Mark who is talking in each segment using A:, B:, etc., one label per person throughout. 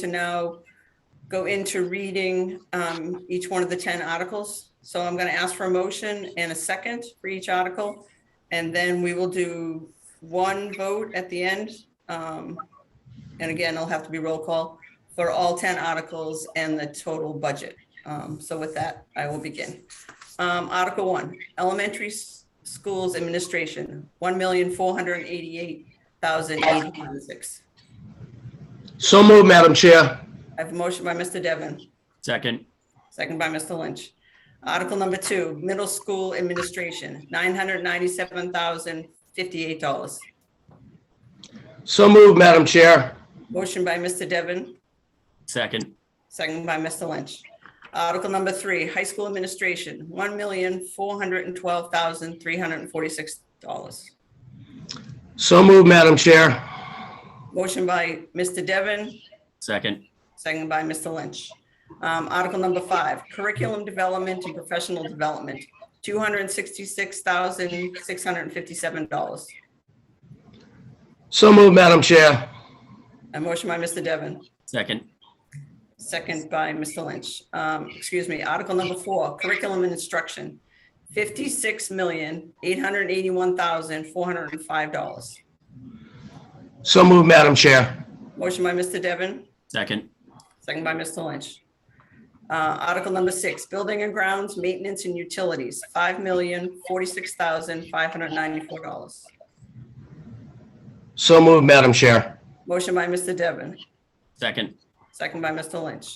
A: to now go into reading um, each one of the 10 articles. So I'm going to ask for a motion and a second for each article. And then we will do one vote at the end. Um, And again, it'll have to be roll call for all 10 articles and the total budget. Um, So with that, I will begin. Um, Article 1, Elementary S- Schools Administration, 1488886
B: So moved, Madam Chair.
A: I have a motion by Mr. Devon.
C: Second,
A: Second by Mr. Lynch. Article number two, middle school administration, nine hundred ninety-seven thousand fifty-eight dollars.
B: So moved, Madam Chair.
A: Motion by Mr. Devon,
C: second,
A: second by Mr. Lynch. Article number three, high school administration, one million four hundred and twelve thousand three hundred and forty-six dollars.
B: So moved, Madam Chair.
A: Motion by Mr. Devon,
C: second,
A: second by Mr. Lynch. Um, Article number five, curriculum development and professional development, two hundred and sixty-six thousand six hundred and fifty-seven dollars.
B: So moved, Madam Chair.
A: A motion by Mr. Devon,
C: second,
A: second by Mr. Lynch. Um, Excuse me, Article number four, curriculum and instruction, fifty-six million, eight hundred and eighty-one thousand, four hundred and five dollars.
B: So moved, Madam Chair.
A: Motion by Mr. Devon,
C: second,
A: second by Mr. Lynch. Uh, Article number six, building and grounds, maintenance and utilities, five million, forty-six thousand, five hundred and ninety-four dollars.
B: So moved, Madam Chair.
A: Motion by Mr. Devon,
C: second,
A: Second by Mr. Lynch.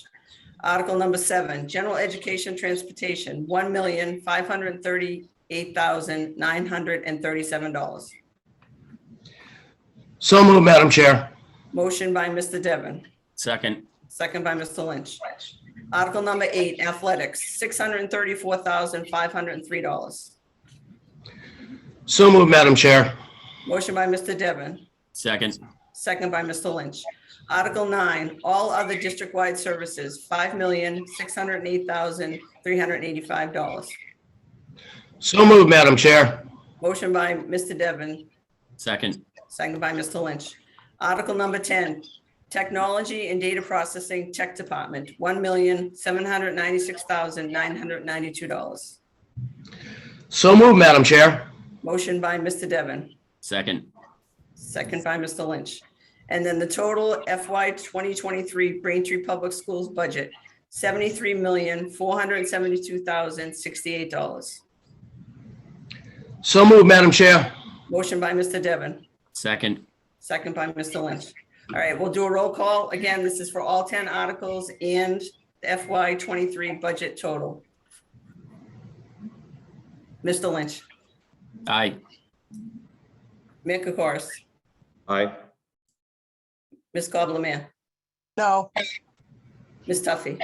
A: Article number seven, general education transportation, one million, five hundred and thirty-eight thousand, nine hundred and thirty-seven dollars.
B: So moved, Madam Chair.
A: Motion by Mr. Devon,
C: second,
A: second by Mr. Lynch. Article number eight, athletics, six hundred and thirty-four thousand, five hundred and three dollars.
B: So moved, Madam Chair.
A: Motion by Mr. Devon,
C: second,
A: second by Mr. Lynch. Article nine, all other district-wide services, five million, six hundred and eight thousand, three hundred and eighty-five dollars.
B: So moved, Madam Chair.
A: Motion by Mr. Devon,
C: second,
A: Second by Mr. Lynch. Article number 10, Technology and Data Processing Tech Department, $1,796,992.
B: So moved, Madam Chair.
A: Motion by Mr. Devon,
C: second,
A: second by Mr. Lynch. And then the total FY 2023 Braintree Public Schools budget, $73,472,068.
B: So moved, Madam Chair.
A: Motion by Mr. Devon,
C: second,
A: Second by Mr. Lynch. All right, we'll do a roll call. Again, this is for all 10 articles and the FY '23 budget total. Mr. Lynch,
C: aye,
A: Mayor Kokoris,
D: Aye.
A: Ms. Gobler Mayor,
E: No,
A: Ms. Tuffy,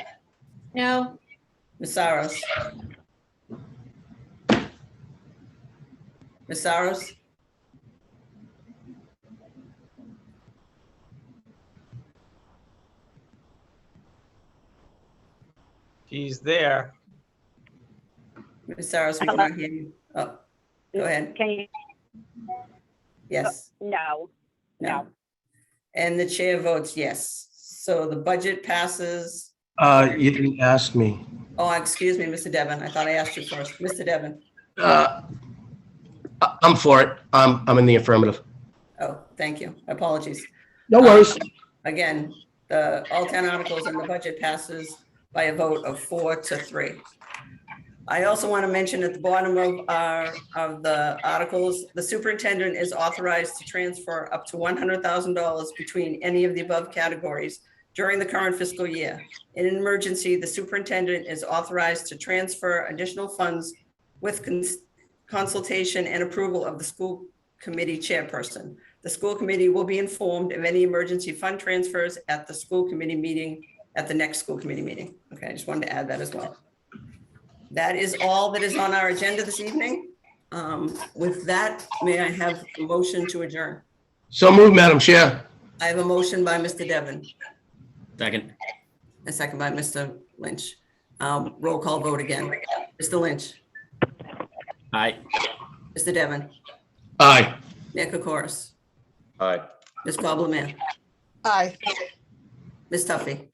F: No,
A: Ms. Saros. Ms. Saros?
G: She's there.
A: Ms. Saros, we cannot hear you. Oh, go ahead.
H: Can you,
A: Yes.
H: no,
A: No. And the chair votes yes. So the budget passes
B: Uh, you didn't ask me.
A: Oh, excuse me, Mr. Devon. I thought I asked you first. Mr. Devon.
B: Uh, I- I'm for it. I'm, I'm in the affirmative.
A: Oh, thank you. Apologies.
B: No worries.
A: Again, the, all 10 articles in the budget passes by a vote of four to three. I also want to mention at the bottom of our, of the articles, the superintendent is authorized to transfer up to $100,000 between any of the above categories during the current fiscal year. In an emergency, the superintendent is authorized to transfer additional funds with cons- consultation and approval of the school committee chairperson. The school committee will be informed of any emergency fund transfers at the school committee meeting, at the next school committee meeting. Okay, I just wanted to add that as well. That is all that is on our agenda this evening. Um, With that, may I have a motion to adjourn?
B: So moved, Madam Chair.
A: I have a motion by Mr. Devon,
C: second,
A: a second by Mr. Lynch. Um, Roll call vote again. Mr. Lynch,
C: aye,
A: Mr. Devon,
B: Aye.
A: Nick Okoris,
D: Aye.
A: Ms. Cobbleman,
E: aye.
A: Ms. Tuffy?